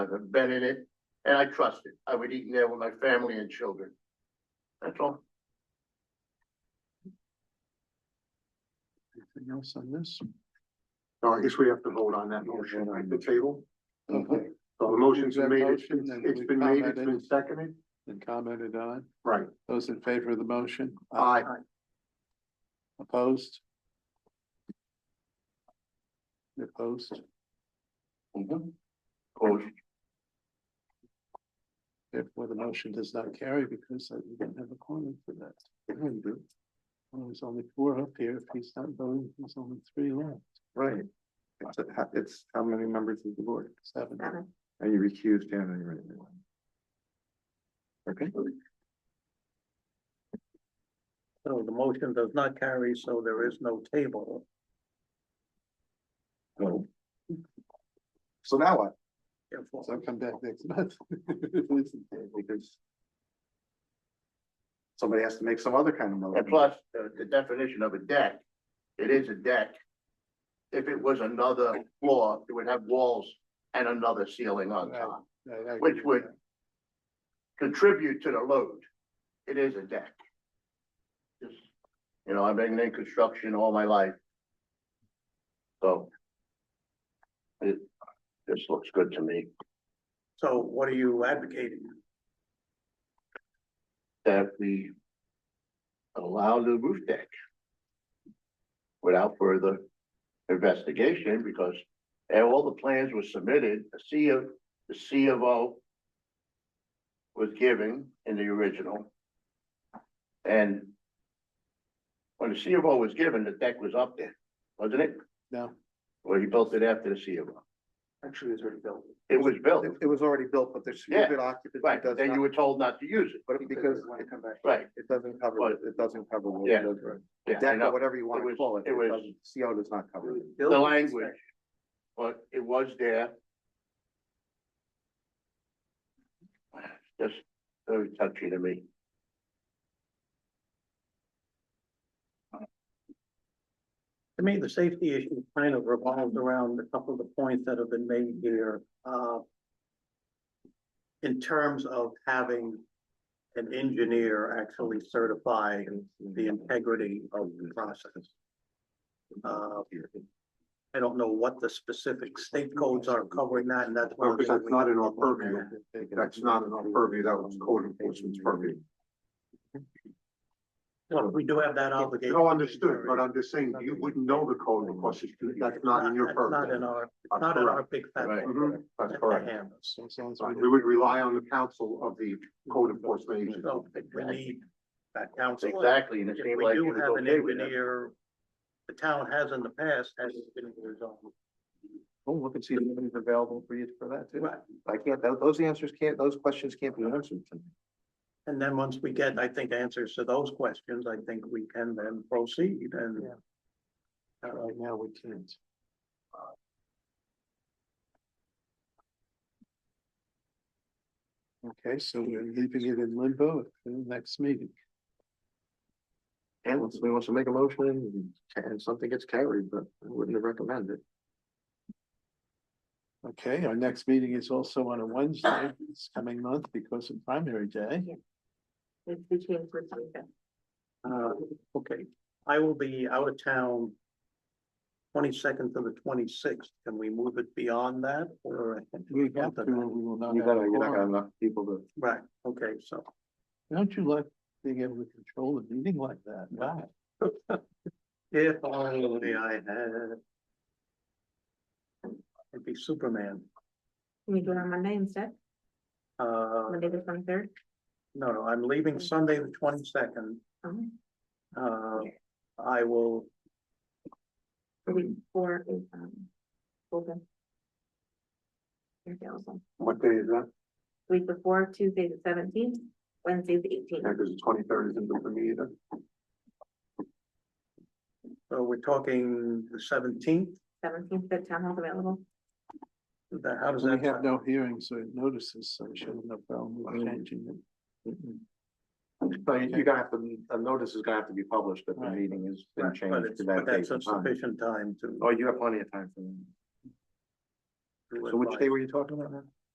I've been in it and I trust it. I would eat in there with my family and children. That's all. Anything else on this? Oh, I guess we have to vote on that motion at the table. Okay. So the motion's been made, it's Motion, and it's we been made, it's been commented. seconded, and commented on. right, Those in favor of the motion? aye. Opposed? Opposed? Mm-hmm. Coach, Therefore, the motion does not carry because I didn't have a quorum for that. Well, there's only four up here. If he's not voting, there's only three left. Right. It's, a- ha- it's how many members of the board? Seven. Are you recused Dan, and you're in? Okay, So the motion does not carry, so there is no table. so. So now what? Therefore, So I'll come back next month. Listen, Because. Somebody has to make some other kind of And motion. plus, uh, the definition of a deck, it is a deck. If it was another floor, it would have walls and another ceiling on top. I- I- Which would- Contribute to the load. It is a deck. Just, You know, I've been in construction all my life. So. It, this looks good to me. so what are you advocating? that we allow the roof deck without further investigation, because eh, all the plans were submitted, the C of, the C of O was given in the original. And when the C of O was given, the deck was up there, wasn't it? No. Well, you built it after the C of O. Actually, it's already built. It was built, It, it was already built, but there's Yeah, certificate occupancy right, does then you not, were told not to use it, but because When it, it come back. right? it doesn't cover, But- it doesn't cover. what Yeah. it does, right? Yeah, I Deck know. or whatever you It wanna was- call it, it was- it doesn't, CO does not cover it. the language. But it was there. Just very touchy to me. To me, the safety issue kind of revolves around a couple of the points that have been made here. uh, In terms of having an engineer actually certify the integrity of the process. Uh, I don't know what the specific state codes are covering that, and that's. Because that's not in our purview, That's that's not in our purview, that was code enforcement's purview. Well, We do have that obligation. No, understood, but I'm just saying, you wouldn't know the code because it's, that's not in your That's Not in purview. our, That's not in our correct. big fat. Right. book. Mhm, That's That's a correct. hammer. So as long as Right, we We would rely on the counsel of the code enforcement agency. So we need that counsel. Exactly, and it If seemed we like. it do was have an okay with that. engineer, the town has in the past, has been resolved. We'll Oh, look and see if anything's available for you for that too. Right. I can't, tho- those answers can't, those questions can't be answered. tonight. And then once we get, I think, answers to those questions, I think we can then proceed and. Yeah. right now we can't. Okay, so we're leaving it in limbo for the next meeting. And if somebody wants to make a motion and something gets carried, but I wouldn't recommend it. Okay, our next meeting is also on a Wednesday, this coming month because of primary day. It's between first and fifth. Uh, okay, I will be out of town. Twenty-second to the twenty-sixth, can we move it beyond that or? We have to, we will not You have gotta, a you're not gonna have quorum. enough people to. Right, okay, so. Don't you like being able to control the meeting like that? Wow. If only I had. It'd be Superman. Can we do it on Monday instead? Uh, Monday the twenty-third? no, no, I'm leaving Sunday the twenty-second. The Uh, I will, week before is, um, open. Your sales on. What day is that? Week before, Tuesday the seventeenth, Wednesday the eighteenth. Yeah, because the twenty-third isn't good for me either. so uh, we're talking the seventeenth, Seventeenth, the town hall available. how does We that? have sound? no hearings or notices, so we shouldn't have problem with changing it. Mm-hmm. So you- you're gonna have to, a notice is gonna have to be published that the Right. meeting has been Right, But changed it's, to that but date. that's and time. sufficient time to. Oh, you have plenty of time for that. to Oh, So which advise. day were you talking about now?